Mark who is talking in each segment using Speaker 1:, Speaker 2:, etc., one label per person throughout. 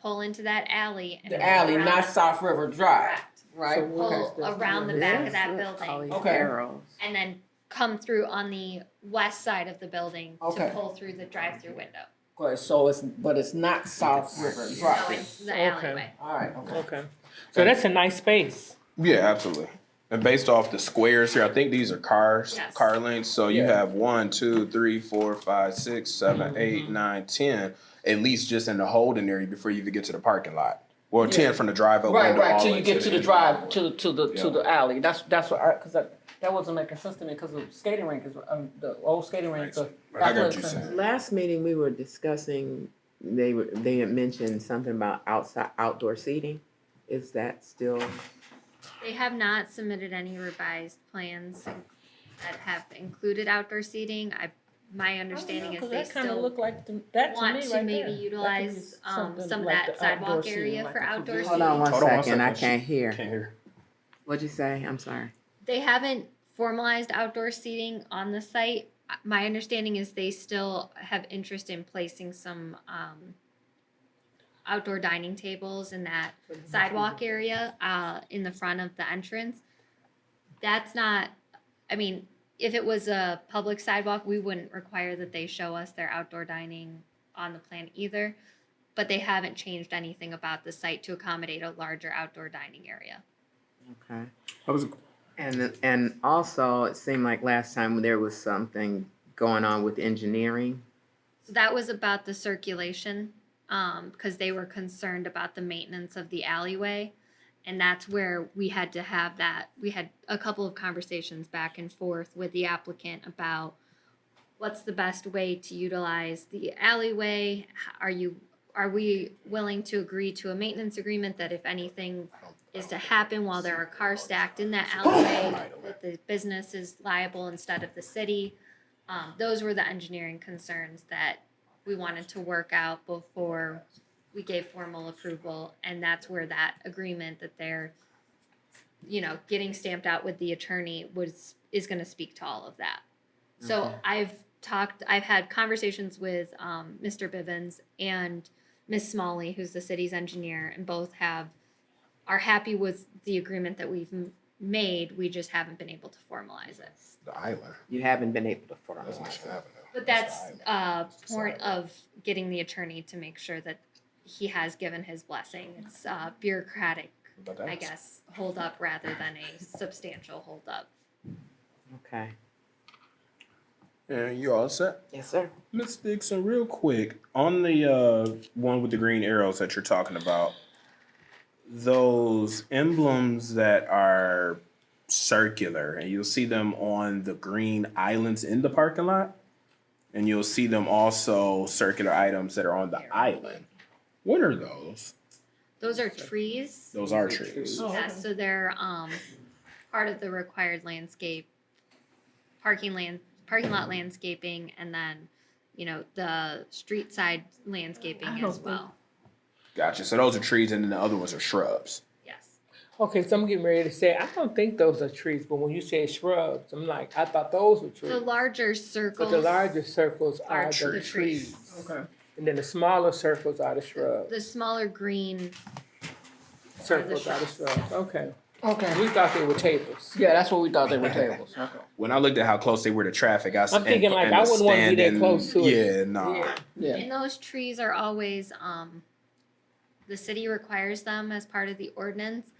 Speaker 1: pull into that alley. and
Speaker 2: The
Speaker 1: pull
Speaker 2: alley,
Speaker 1: around
Speaker 2: not
Speaker 1: the-
Speaker 2: South River Drive,
Speaker 1: Correct.
Speaker 2: right?
Speaker 1: Pull Oh, around the back of that building
Speaker 2: Okay.
Speaker 3: Arrows.
Speaker 1: and then come through on the west side of the building to
Speaker 2: Okay.
Speaker 1: pull through the drive-through window.
Speaker 2: Okay, so it's, but it's not South River
Speaker 1: So
Speaker 2: Drive.
Speaker 1: it's the
Speaker 4: Okay.
Speaker 1: alleyway.
Speaker 2: All right, okay.
Speaker 4: Okay, so that's a nice space.
Speaker 5: Yeah, absolutely. And based off the squares here, I think these are cars,
Speaker 1: Yes.
Speaker 5: car lanes. So you
Speaker 2: Yeah.
Speaker 5: have one, two, three, four, five, six,
Speaker 1: Mm-hmm.
Speaker 5: seven, eight, nine, ten. At least just in the holding area before you even get to the parking lot. Well, ten from the drive up
Speaker 2: Right,
Speaker 5: window
Speaker 2: right,
Speaker 5: all
Speaker 2: till you
Speaker 5: into
Speaker 2: get to the
Speaker 5: end.
Speaker 2: drive, to, to the, to
Speaker 5: Yeah.
Speaker 2: the alley, that's, that's what I, cause that, that wasn't making sense to me, cause the skating rink is, um, the old skating rink,
Speaker 5: Right,
Speaker 2: so.
Speaker 5: Right, I
Speaker 2: that's
Speaker 5: got
Speaker 2: what
Speaker 5: you
Speaker 2: it-
Speaker 5: saying.
Speaker 3: Last meeting, we were discussing, they were, they had mentioned something about outside, outdoor seating. Is that still,
Speaker 1: They have not submitted any revised plans that have included outdoor seating. I, my understanding is they still
Speaker 4: like,
Speaker 1: want to maybe utilize, um, some of that sidewalk area for outdoor
Speaker 3: hold on
Speaker 1: seating.
Speaker 3: one
Speaker 5: Hold on one
Speaker 3: second, I
Speaker 5: second.
Speaker 3: can't hear.
Speaker 5: Can't hear.
Speaker 3: What'd you say? I'm sorry.
Speaker 1: They haven't formalized outdoor seating on the site. Uh, My understanding is they still have interest in placing some, um, outdoor dining tables in that sidewalk area uh, in the front of the entrance. That's not, I mean, if it was a public sidewalk, we wouldn't require that they show us their outdoor dining on the plan either. But they haven't changed anything about the site to accommodate a larger outdoor dining area.
Speaker 3: Okay.
Speaker 6: I was,
Speaker 3: And, and also, it seemed like last time there was something going on with engineering.
Speaker 1: So that was about the circulation, um, because they were concerned about the maintenance of the alleyway. And that's where we had to have that, we had a couple of conversations back and forth with the applicant about what's the best way to utilize the alleyway? H- Are you, are we willing to agree to a maintenance agreement that if anything is to happen while there are cars stacked in that alleyway, that the business is liable instead of the city? Um, those were the engineering concerns that we wanted to work out before we gave formal approval. And that's where that agreement that they're, you know, getting stamped out with the attorney was, is gonna speak to all of that. So
Speaker 3: Okay.
Speaker 1: I've talked, I've had conversations with, um, Mr. Bivens and Ms. Smalley, who's the city's engineer, and both have, are happy with the agreement that we've m- made, we just haven't been able to formalize it.
Speaker 5: The island.
Speaker 3: You haven't been able to
Speaker 5: That's
Speaker 3: formalize.
Speaker 5: Michigan Avenue.
Speaker 1: But
Speaker 5: the
Speaker 1: that's
Speaker 5: island.
Speaker 1: a
Speaker 5: It's
Speaker 1: point
Speaker 5: like-
Speaker 1: of getting the attorney to make sure that he has given his blessing. It's uh, bureaucratic,
Speaker 5: But
Speaker 1: I
Speaker 5: that's-
Speaker 1: guess, holdup rather than a substantial holdup.
Speaker 3: Okay.
Speaker 5: And you all set?
Speaker 3: Yes, sir.
Speaker 5: Miss Dixon, real quick, on the uh, one with the green arrows that you're talking about, those emblems that are circular, and you'll see them on the green islands in the parking lot, and you'll see them also circular items that are on the island. What are those?
Speaker 1: Those are trees.
Speaker 5: Those are trees.
Speaker 1: Yeah, so they're um, part of the required landscape, parking land, parking lot landscaping, and then, you know, the street side landscaping
Speaker 4: I don't
Speaker 1: as
Speaker 4: think-
Speaker 1: well.
Speaker 5: Gotcha. So those are trees, and then the other ones are shrubs.
Speaker 1: Yes.
Speaker 4: Okay, so I'm getting ready to say, I don't think those are trees, but when you say shrubs, I'm like, I thought those were
Speaker 1: The
Speaker 4: trees.
Speaker 1: larger
Speaker 4: But
Speaker 1: circles.
Speaker 4: the larger circles
Speaker 1: are
Speaker 4: are the
Speaker 1: trees.
Speaker 4: trees.
Speaker 3: Okay.
Speaker 4: And then the smaller circles are the shrubs.
Speaker 1: The smaller green
Speaker 4: Circles are the
Speaker 1: shrubs.
Speaker 4: shrubs, okay.
Speaker 2: Okay,
Speaker 4: We thought they were tables.
Speaker 2: yeah, that's what we thought they were tables, okay.
Speaker 5: When I looked at how close they were to traffic, I s-
Speaker 4: I'm thinking,
Speaker 5: and-
Speaker 4: like,
Speaker 5: and
Speaker 4: I
Speaker 5: the
Speaker 4: wouldn't wanna be that
Speaker 5: standing-
Speaker 4: close to it.
Speaker 5: Yeah, nah.
Speaker 4: Yeah.
Speaker 2: Yeah,
Speaker 1: And those trees are always, um, the city requires them as part of the ordinance.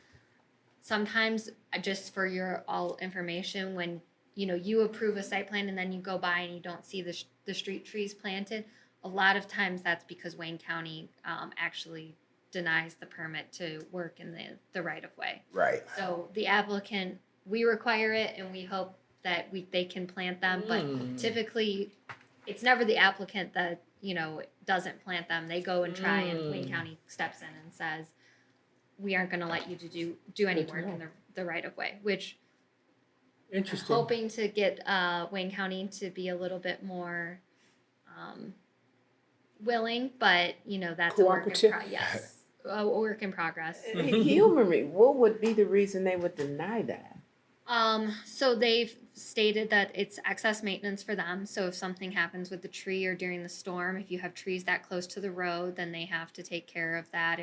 Speaker 1: Sometimes, uh, just for your all information, when, you know, you approve a site plan and then you go by and you don't see the, sh- the street trees planted, a lot of times that's because Wayne County, um, actually denies the permit to work in the, the right of way.
Speaker 5: Right.
Speaker 1: So the applicant, we require it and we hope that we, they can plant them, but
Speaker 4: Mm.
Speaker 1: typically, it's never the applicant that, you know, doesn't plant them. They go and try and Wayne
Speaker 4: Mm.
Speaker 1: County steps in and says, we aren't gonna let you to do, do any
Speaker 4: Good to
Speaker 1: work in the, the right of way, which I'm
Speaker 4: Interesting.
Speaker 1: hoping to get, uh, Wayne County to be a little bit more, um, willing, but, you know, that's a work in
Speaker 4: Cooperative?
Speaker 1: pro- yes. A work in progress.
Speaker 3: Humor me, what would be the reason they would deny that?
Speaker 1: Um, so they've stated that it's excess maintenance for them. So if something happens with the tree or during the storm, if you have trees that close to the road, then they have to take care of that.